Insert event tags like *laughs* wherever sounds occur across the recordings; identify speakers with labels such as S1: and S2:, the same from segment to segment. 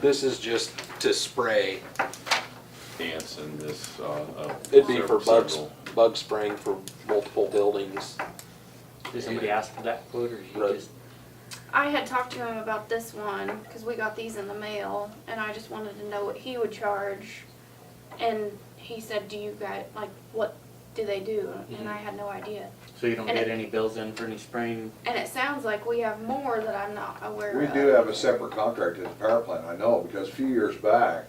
S1: This is just to spray.
S2: ants in this, uh, uh.
S1: It'd be
S2: several-
S1: for bugs,
S2: several.
S1: bug spraying for multiple buildings.
S3: Does somebody ask for that quote or you
S1: Right.
S3: just?
S4: I had talked to him about this one because we got these in the mail, and I just wanted to know what he would charge. And he said, "Do you guys like what do they do?" And I had no idea.
S3: So you don't
S4: And
S3: get
S4: it-
S3: any bills in for any spraying?
S4: And it sounds like we have more that I'm not aware
S5: We
S4: of.
S5: do have a separate contract at the power plant, I know, because a few years back,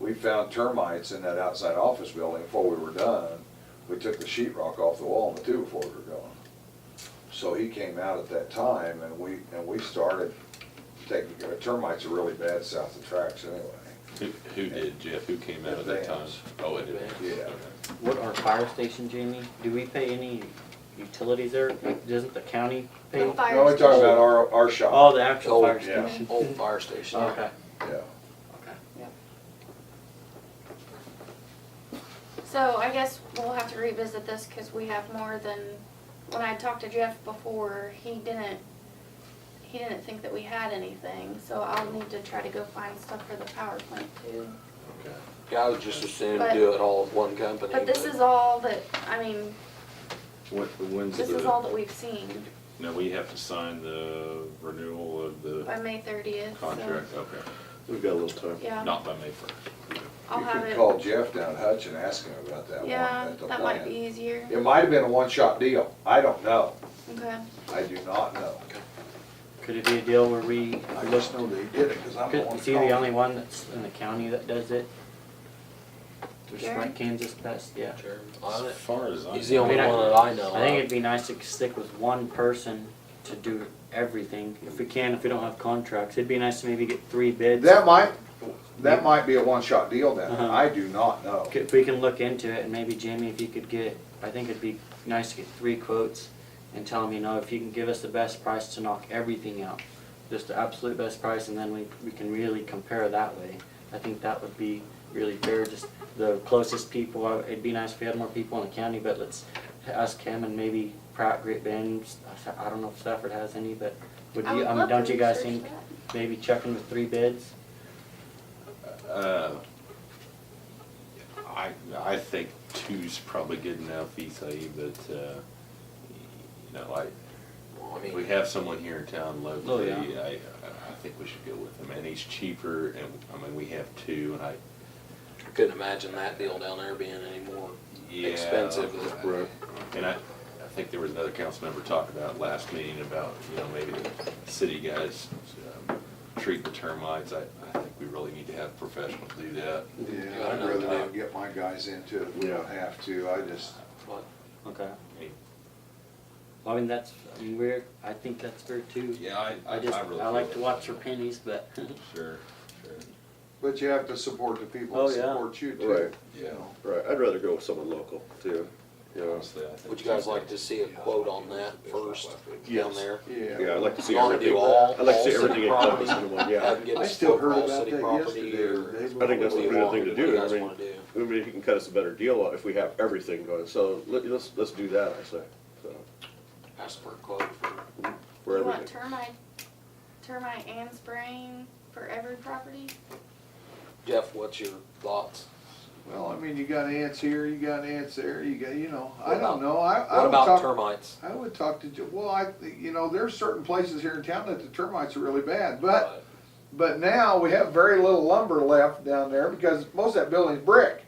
S5: we found termites in that outside office building before we were done. We took the sheetrock off the wall and the two before we were gone. So he came out at that time and we, and we started taking, uh, termites are really bad south of tracks anyway.
S2: Who, who did, Jeff? Who came out at that time?
S5: Advance.
S2: Oh, it did.
S5: Yeah.
S3: What, our fire station, Jamie, do we pay any utilities there? Like, doesn't the county pay?
S4: The fire
S5: No, we're talking
S4: station.
S5: about our, our shop,
S3: Oh, the actual
S1: Oh,
S3: fire
S5: yeah.
S3: station?
S1: Old fire station.
S3: Mm-hmm. Okay.
S5: yeah.
S4: So I guess we'll have to revisit this because we have more than, when I talked to Jeff before, he didn't, he didn't think that we had anything, so I'll need to try to go find stuff for the power plant too.
S2: Okay.
S1: Yeah, I would just as soon do it all at one company.
S4: But this is all that, I mean,
S2: When, when's
S4: this is all
S2: the,
S4: that we've seen
S2: now we have to sign the renewal of the
S4: by May thirtieth, so,
S2: contract, okay,
S6: We've got a little time.
S4: yeah,
S2: not by May first.
S4: I'll have
S5: You could
S4: it,
S5: call Jeff down at Hutch and ask him about that one
S4: yeah,
S5: at the
S4: that might
S5: plant.
S4: be easier,
S5: It might have been a one-shot deal, I don't know,
S4: okay.
S5: I do not know.
S3: Could it be a deal where we,
S5: I just know they did it, cause I'm the
S3: could,
S5: one.
S3: is he
S5: calling.
S3: the only one that's in the county that does it? Just
S4: Jerry?
S3: like Kansas, that's, yeah.
S1: On it.
S2: As far as I.
S1: He's the only
S3: I mean, I-
S1: one that I know
S3: I think
S1: of.
S3: it'd be nice to stick with one person to do everything, if we can, if we don't have contracts. It'd be nice to maybe get three bids.
S5: That might, that might be a one-shot deal then,
S3: Uh-huh.
S5: I do not know.
S3: If we can look into it, and maybe Jamie, if you could get, I think it'd be nice to get three quotes and tell them, you know, if you can give us the best price to knock everything out, just the absolute best price, and then we, we can really compare that way. I think that would be really fair, just the closest people, uh, it'd be nice if we had more people in the county, but let's ask him and maybe Pratt, Great Bend, I don't know if Stafford has any, but would
S4: I would
S3: you, I mean,
S4: love to
S3: don't you guys
S4: research
S3: think, maybe checking with three bids?
S2: Uh, I, I think two's probably good enough, Isai, but, uh, you know, like,
S1: Well, I
S2: We
S1: mean,
S2: have someone here in town locally,
S3: Oh, yeah.
S2: I, I think we should go with him, and he's cheaper, and, I mean, we have two, and I,
S1: couldn't imagine that deal down there being any more
S2: yeah.
S1: expensive.
S6: Right.
S2: And I, I think there was another council member talking about last meeting about, you know, maybe the city guys um, treat the termites, I, I think we really need to have professionals do that.
S5: Yeah, I'd rather not get my guys into it, if we don't have to, I just,
S1: But
S3: Okay.
S2: I mean,
S3: Well, I mean, that's, I mean, we're, I think that's fair too.
S2: Yeah, I, I
S3: I just,
S2: really.
S3: I like
S2: feel
S3: to
S2: that.
S3: watch your pennies, but. *laughs*
S2: Sure, sure,
S5: but you have to support the people
S3: Oh,
S5: that
S3: yeah.
S5: support you too.
S6: Right.
S2: yeah,
S6: Right, I'd rather go with someone local too, you know.
S2: honestly, I think.
S1: would you guys like to see a quote on that first down
S6: Yes.
S1: there?
S6: Yeah,
S5: Yeah.
S6: I'd like to see
S1: You wanna
S6: everything,
S1: do all-
S6: I'd like to see
S1: all city
S6: everything encompassed in one, yeah.
S1: Have them get
S5: I
S1: us
S5: still
S1: quote
S5: heard
S1: all
S5: about
S1: city
S5: that
S1: property
S5: yesterday,
S1: or
S5: or they
S6: I think
S1: what
S6: that's
S1: do
S6: a
S1: you
S5: were-
S6: pretty good
S1: want,
S6: thing to
S1: what do you
S6: do, I
S1: guys
S6: mean-
S1: wanna do?
S6: I mean, you can cut us a better deal if we have everything going, so let, let's, let's do that, I say, so,
S1: Ask for a quote for
S6: for
S4: You want
S6: everything.
S4: termite, termite and spraying for every property?
S1: Jeff, what's your thoughts?
S5: Well, I mean, you got ants here, you got ants there, you got, you know, I
S1: What
S5: don't
S1: about-
S5: know, I, I
S1: What
S5: would
S1: about
S5: talk,
S1: termites?
S5: I would talk to, Jo- well, I, you know, there's certain places here in town that the termites are really bad, but But now we have very little lumber left down there because most of that building's brick.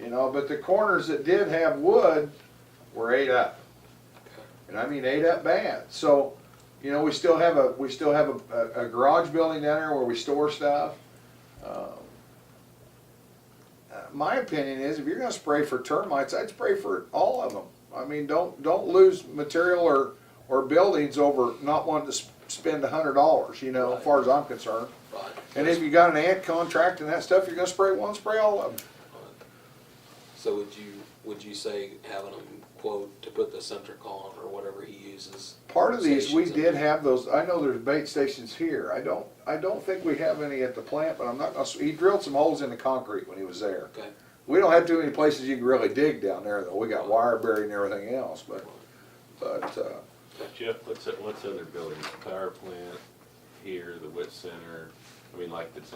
S5: You know, but the corners that did have wood were ate up. And I mean ate up bad. So, you know, we still have a, we still have a, a garage building down there where we store stuff. Um, uh, My opinion is if you're gonna spray for termites, I'd spray for all of them. I mean, don't, don't lose material or, or buildings over not wanting to s- spend a hundred dollars, you know, as far as I'm concerned.
S1: Right.
S5: And if you got an ant contract and that stuff, you're gonna spray one, spray all of them.
S1: So would you, would you say having him quote to put the centric on or whatever he uses?
S5: Part of these, we
S1: stations in
S5: did
S1: there?
S5: have those, I know there's bait stations here, I don't, I don't think we have any at the plant, but I'm not, gonna s- he drilled some holes in the concrete when he was there.
S1: Okay,
S5: We don't have too many places you can really dig down there though, we got wire buried and everything else, but, but, uh,
S2: Jeff, what's, what's other buildings, power plant here, the wit center, I mean, like, that's